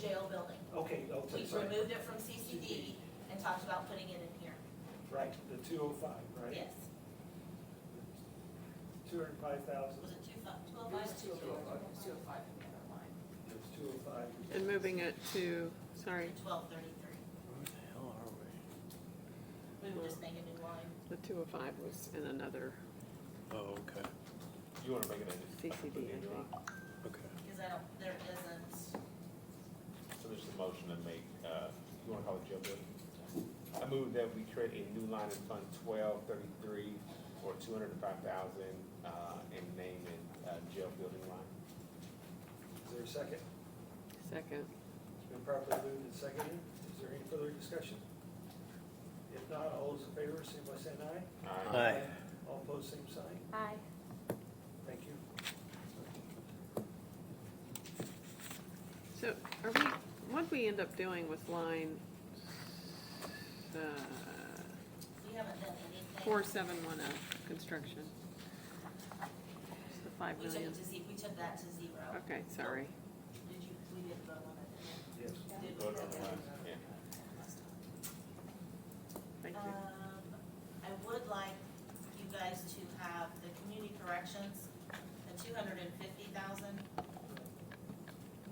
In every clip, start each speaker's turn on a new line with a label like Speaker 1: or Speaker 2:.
Speaker 1: jail building.
Speaker 2: Okay, oh,
Speaker 1: We
Speaker 2: that's right,
Speaker 1: removed it from CCD and talked about putting it in here.
Speaker 2: right, the two oh five, right?
Speaker 1: Yes,
Speaker 2: Two hundred and five thousand,
Speaker 1: was it two five, two oh
Speaker 3: It
Speaker 1: five?
Speaker 3: was two oh five, it was two oh five in the other line.
Speaker 2: it's two oh five.
Speaker 4: And moving it to, sorry,
Speaker 1: Twelve thirty-three.
Speaker 5: Where the hell are we?
Speaker 1: We would just make a new line.
Speaker 4: the two oh five was in another
Speaker 5: Oh, okay,
Speaker 6: You wanna make it a,
Speaker 4: CCD, I think.
Speaker 5: okay.
Speaker 1: Because I don't, there isn't,
Speaker 6: so there's a motion to make, uh, you wanna call it jail building? I move that we create a new line in Fund twelve thirty-three for two hundred and five thousand, uh, and name it, uh, jail building line.
Speaker 2: Is there a second?
Speaker 4: Second,
Speaker 2: It's been properly moved and seconded, is there any further discussion? If not, all those in favor, signify by saying aye.
Speaker 6: Aye.
Speaker 5: Aye.
Speaker 2: All opposed, same sign.
Speaker 1: Aye.
Speaker 2: Thank you.
Speaker 4: so are we, what'd we end up doing with line, uh,
Speaker 1: we haven't done anything.
Speaker 4: four seven one oh, construction? It's the five
Speaker 1: We took
Speaker 4: million,
Speaker 1: it to ze, we took that to zero.
Speaker 4: okay, sorry.
Speaker 1: Did you, we didn't vote on it, did
Speaker 2: Yes.
Speaker 1: we? Did we?
Speaker 6: Vote on the line, yeah.
Speaker 4: Thank
Speaker 1: Um,
Speaker 4: you.
Speaker 1: I would like you guys to have the community corrections, the two hundred and fifty thousand,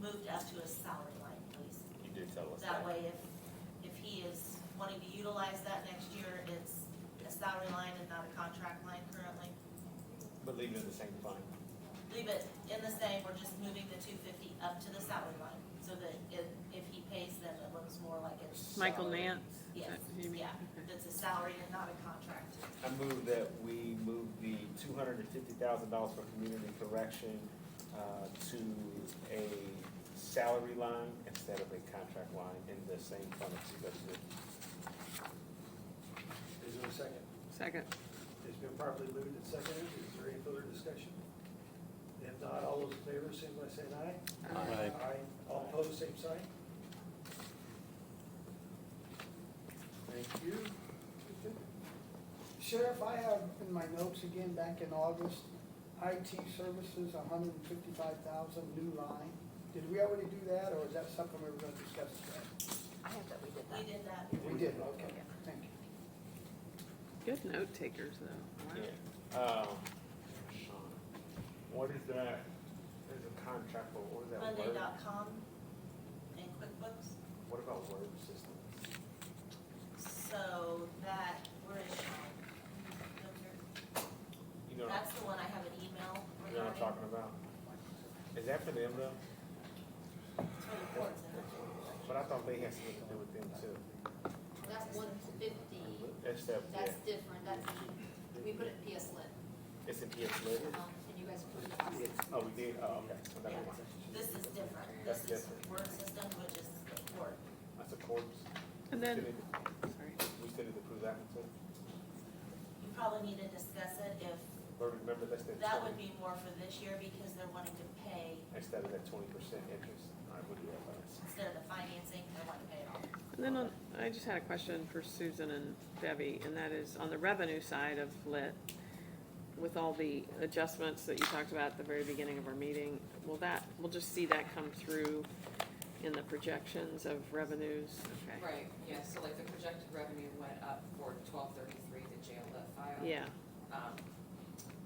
Speaker 1: moved up to a salary line, please.
Speaker 6: You did tell us that.
Speaker 1: That way, if, if he is wanting to utilize that next year, it's a salary line and not a contract line currently.
Speaker 6: But leave it in the same fund.
Speaker 1: Leave it in the same, we're just moving the two fifty up to the salary line, so that if, if he pays them, it looks more like it's.
Speaker 4: Michael Nance? is
Speaker 1: Yes,
Speaker 4: that who you mean?
Speaker 1: yeah,
Speaker 4: Okay.
Speaker 1: that's a salary and not a contract.
Speaker 6: I move that we move the two hundred and fifty thousand dollars for community correction, uh, to a salary line instead of a contract line in the same fund of two thirty-three.
Speaker 2: Is there a second?
Speaker 4: Second,
Speaker 2: It's been properly moved and seconded, is there any further discussion? If not, all those in favor, signify by saying aye.
Speaker 5: Aye.
Speaker 2: All opposed, same sign? Thank you.
Speaker 7: Sheriff, I have in my notes again back in August, IT services, $155,000 new line. Did we already do that, or is that something we were gonna discuss today?
Speaker 3: I have that we did
Speaker 1: We
Speaker 3: that.
Speaker 1: did that.
Speaker 7: We did, okay, thank you.
Speaker 4: good note takers though. Wow.
Speaker 6: Yeah. Um, Sean, what is that, there's a contract, but what is that
Speaker 1: Oh,
Speaker 6: word?
Speaker 1: Monday.com and QuickBooks,
Speaker 6: What about word system?
Speaker 1: so that, where is Sean?
Speaker 6: You know,
Speaker 1: That's the one I have an email
Speaker 6: you know what I'm
Speaker 1: regarding.
Speaker 6: talking about? Is that for them though?
Speaker 1: It's for the courts, isn't it?
Speaker 6: But I thought they had something to do with them too.
Speaker 3: That's one fifty,
Speaker 6: That's that, yeah,
Speaker 3: that's different, that's, we put it in PS lit,
Speaker 6: it's in PS Lit.
Speaker 3: um, and you guys approved it.
Speaker 6: Oh, we did, oh, okay, so never
Speaker 1: Yeah.
Speaker 6: mind.
Speaker 1: This is different, this
Speaker 6: That's
Speaker 1: is
Speaker 6: different.
Speaker 1: word system, which is the court.
Speaker 6: That's a corpse.
Speaker 4: And then,
Speaker 6: We still need
Speaker 4: sorry.
Speaker 6: to- We still need to prove that one too.
Speaker 1: You probably need to discuss it if,
Speaker 6: But remember, that's that
Speaker 1: that would
Speaker 6: twenty,
Speaker 1: be more for this year because they're wanting to pay,
Speaker 6: instead of that twenty percent interest, I would do that last.
Speaker 1: instead of the financing, they want to pay it off.
Speaker 4: And then on, I just had a question for Susan and Debbie, and that is on the revenue side of lit, with all the adjustments that you talked about at the very beginning of our meeting, will that, we'll just see that come through in the projections of revenues? Okay.
Speaker 8: Right, yeah, so like the projected revenue went up for twelve thirty-three, the jail lit file.
Speaker 4: Yeah,
Speaker 8: Um,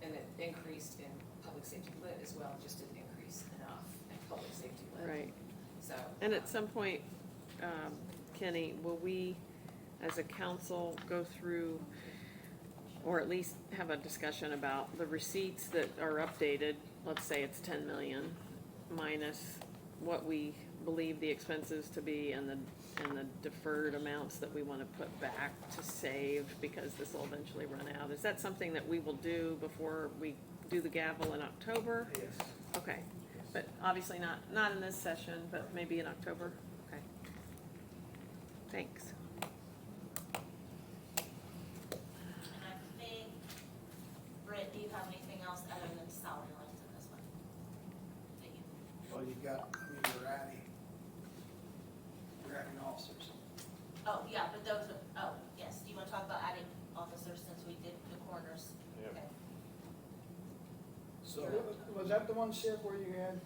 Speaker 8: and it increased in public safety lit as well, just didn't increase enough in public safety lit.
Speaker 4: right.
Speaker 8: So.
Speaker 4: And
Speaker 8: um,
Speaker 4: at some point, um, Kenny, will we, as a council, go through, or at least have a discussion about the receipts that are updated, let's say it's ten million, minus what we believe the expenses to be and the, and the deferred amounts that we wanna put back to save, because this will eventually run out. Is that something that we will do before we do the gavel in October?
Speaker 2: Yes.
Speaker 4: Okay, but obviously not, not in this session, but maybe in October, okay. Thanks.
Speaker 1: And I think, Britt, do you have anything else other than salary lines in this one? That you,
Speaker 7: Well, you got, I mean, you're adding, you're adding officers.
Speaker 1: oh, yeah, but those, are- oh, yes, do you want to talk about adding officers since we did the coroners?
Speaker 6: Yeah.
Speaker 1: Okay.
Speaker 7: So. Was that the one, Sheriff, where you had